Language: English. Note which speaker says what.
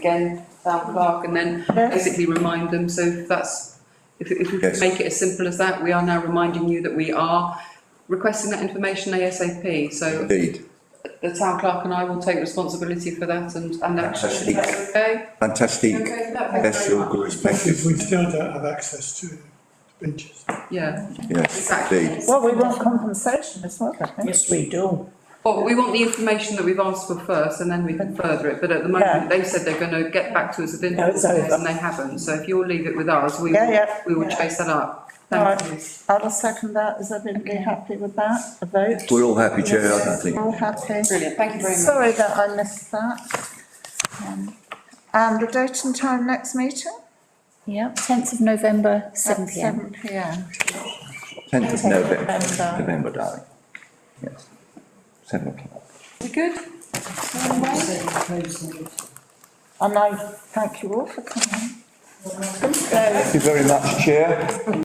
Speaker 1: again, town clerk, and then basically remind them, so if that's, if, if we could
Speaker 2: Yes.
Speaker 1: make it as simple as that, we are now reminding you that we are requesting that information ASAP, so
Speaker 2: Indeed,
Speaker 1: the town clerk and I will take responsibility for that and, and action.
Speaker 2: Fantastic.
Speaker 1: Okay?
Speaker 2: fantastic.
Speaker 1: Okay, that,
Speaker 2: That's
Speaker 1: thank you
Speaker 2: all
Speaker 1: very much.
Speaker 2: good,
Speaker 3: If we
Speaker 2: thank you.
Speaker 3: still don't have access to the benches.
Speaker 1: Yeah,
Speaker 2: Yes,
Speaker 1: exactly.
Speaker 2: indeed,
Speaker 4: Well, we want compensation as well, I think.
Speaker 5: Yes, we do.
Speaker 1: Well, we want the information that we've asked for first and then we can further it, but at the
Speaker 4: Yeah.
Speaker 1: moment, they said they're gonna get back to us within
Speaker 4: No, it's
Speaker 1: four days
Speaker 4: over.
Speaker 1: and they haven't, so if you'll leave it with us, we
Speaker 4: Yeah,
Speaker 1: will,
Speaker 4: yeah.
Speaker 1: we will chase that up.
Speaker 4: Alright.
Speaker 1: Thank you.
Speaker 4: I'll second that. Is everybody happy with that? A vote?
Speaker 2: we're all happy, Chair, I think.
Speaker 4: All happy?
Speaker 1: Brilliant, thank you very much.
Speaker 4: Sorry that I missed that. Um, And the date and time next meeting?
Speaker 6: Yeah, tenth of November, seven
Speaker 4: At
Speaker 6: P M.
Speaker 4: Seven P M.
Speaker 2: Tenth of November,
Speaker 4: November.
Speaker 2: November, darling. Yes, seven o'clock.
Speaker 1: We good?
Speaker 4: And I thank you all for coming.
Speaker 2: Thank you very much, Chair.